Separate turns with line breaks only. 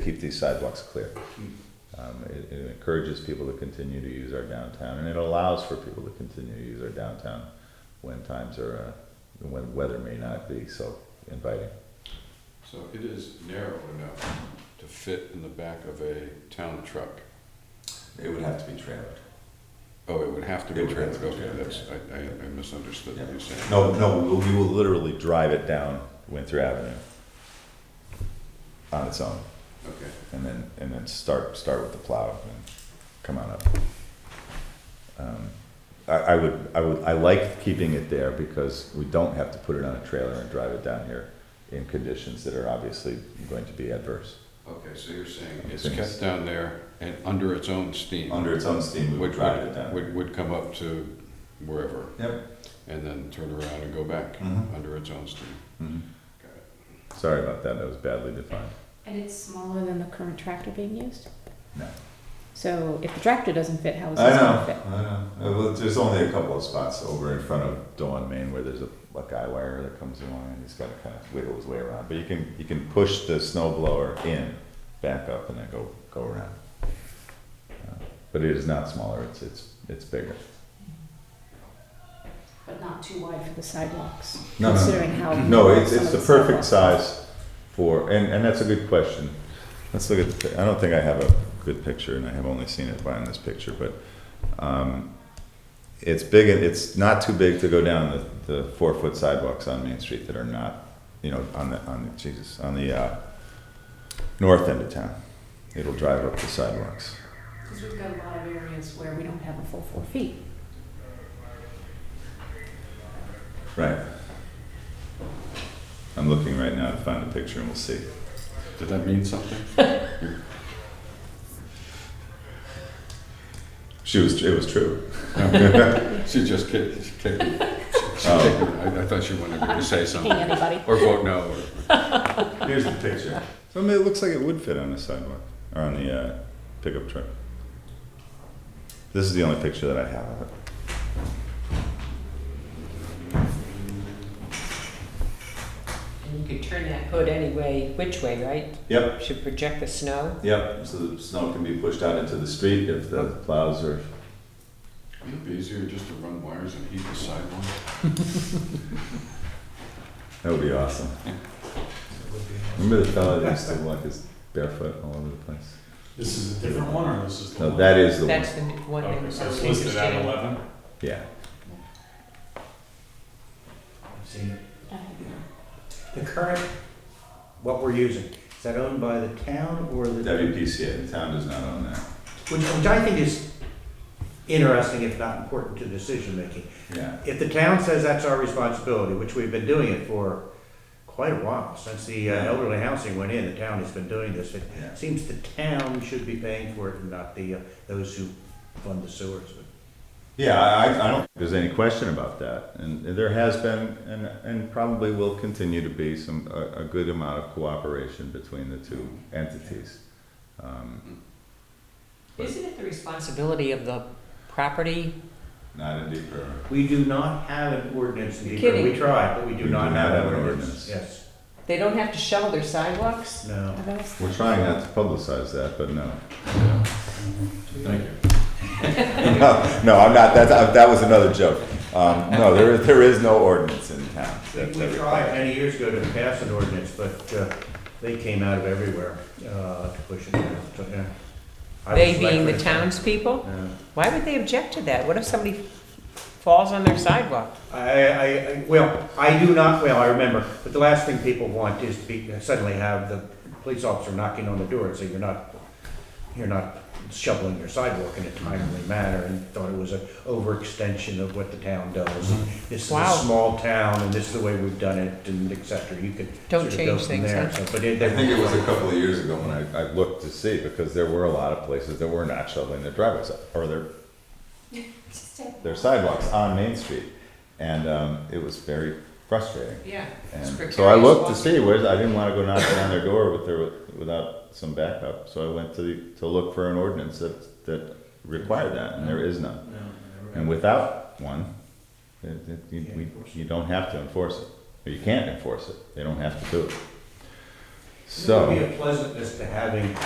keep these sidewalks clear.
Hmm.
Um, it, it encourages people to continue to use our downtown, and it allows for people to continue to use our downtown when times are, uh, when weather may not be so inviting.
So it is narrow enough to fit in the back of a town truck.
It would have to be trailered.
Oh, it would have to be
It would have
trailer,
to be
okay,
trailer,
that's, I, I I misunderstood what you said.
No, no, we will- we will literally drive it down Windsor Avenue on its own,
Okay,
and then, and then start, start with the plow and come on up. Um, I, I would, I would, I like keeping it there because we don't have to put it on a trailer and drive it down here in conditions that are obviously going to be adverse.
okay, so you're saying
I'm
it's
saying
kept
it's-
down there and under its own steam.
Under its own steam, we would
Would,
drive it
would,
down.
would, would come up to wherever
Yep.
and then turn around and go back
Mhm.
under its own steam.
Mhm.
Got it.
Sorry about that, that was badly defined.
And it's smaller than the current tractor being used?
No.
So if the tractor doesn't fit, how is
I
this
know,
gonna fit?
I know. Uh, Well, there's only a couple of spots over in front of Dawn, Maine, where there's a, a guy wire that comes along and he's got to kind of wiggle his way around. But you can, you can push the snow blower in, back up and then go, go around. Uh, But it is not smaller, it's, it's, it's bigger.
But not too wide for the sidewalks,
No, no,
considering how.
No, it's,
some
it's
of
the perfect
sidewalks
size for, and, and that's a good question. Let's look at, the pi- I don't think I have a good picture, and I have only seen it by in this picture, but, um, it's big, and it's not too big to go down the, the four-foot sidewalks on Main Street that are not, you know, on the, on the, Jesus, on the, uh, north end of town. It'll drive up the sidewalks.
are. Cause we've got a lot of areas where we don't have a full four feet.
Right. I'm looking right now to find a picture, and we'll see.
Did that mean something?
She was, it was true.
She just kicked, she kicked, me. she
Oh.
kicked, me. I, I thought she wanted me to say
Hey,
something
anybody?
or vote no or
Here's the picture. So I mean, it looks like it would fit on the sidewalk or on the uh, pickup truck. This is the only picture that I have of it.
And you could turn that hood any way, which way, right?
Yep,
Should project the snow.
yep. So the snow can be pushed out into the street if the plows are.
Wouldn't it be easier just to run wires and heat the sidewalk?
That would be awesome. Remember the fellow that used to walk his barefoot all over the place?
This is a different one, or this is the one?
No, that is the
That's
one.
the n- one
Okay,
that
so
I'm
it's
interested
listed at
in.
eleven?
Yeah.
I've seen it.
Uh,
The current, what we're using, is that owned by the town or the?
WPCA. The town does not own that.
Which, which I think is interesting, if not important to decision making.
Yeah.
If the town says that's our responsibility, which we've been doing it for quite a while, since the uh, elderly housing went in, the town has been doing this. It
Yeah.
seems the town should be paying for it and not the, uh, those who fund the sewers.
Yeah, I, I- I don't think there's any question about that. And there has been, and, and probably will continue to be some, a, a good amount of cooperation between the two entities. Um,
Isn't it the responsibility of the property?
Not in Deep River.
We do not have an ordinance in
You're
Deep River. We
kidding.
tried, but we
We
do not have an ordinance.
ordinance.
Yes,
They don't have to shovel their sidewalks?
no.
are those-
We're trying not to publicize that, but no.
Thank you.
No, no, I'm not, that's, I- that was another joke. Um, no, there, is- there is no ordinance in town.
We
that-
we
that
tried
requires-
many years ago to pass an ordinance, but uh, they came out of everywhere uh, to push it down, so, yeah. I was
They being the
elected.
townspeople?
Yeah.
Why would they object to that? What if somebody falls on their sidewalk?
I, I, I- well, I do not, well, I remember, but the last thing people want is to be, uh, suddenly have the police officer knocking on the door and say, you're not, you're not shoveling your sidewalk in a timely manner, and thought it was an overextension of what the town does. and This is
Mm-hmm. Wow.
a small town, and this is the way we've done it, and et cetera, you could
Don't
sort of go
change
from
things,
there,
huh?
so, but it,
I think it was a couple of years ago when I, I looked to see, because there were a lot of places that were not shoveling their driveways, up, or their
Just a-
their sidewalks on Main Street, and um, it was very frustrating.
Yeah.
And so I looked to see where I didn't want to go knocking on their door with their, without some backup. So I went to the, to look for an ordinance that that required that, and there is none. And without one, it, it, you, we, you don't have to enforce it, or you can't enforce it. They don't have to do it. So.
It would be a pleasantness to having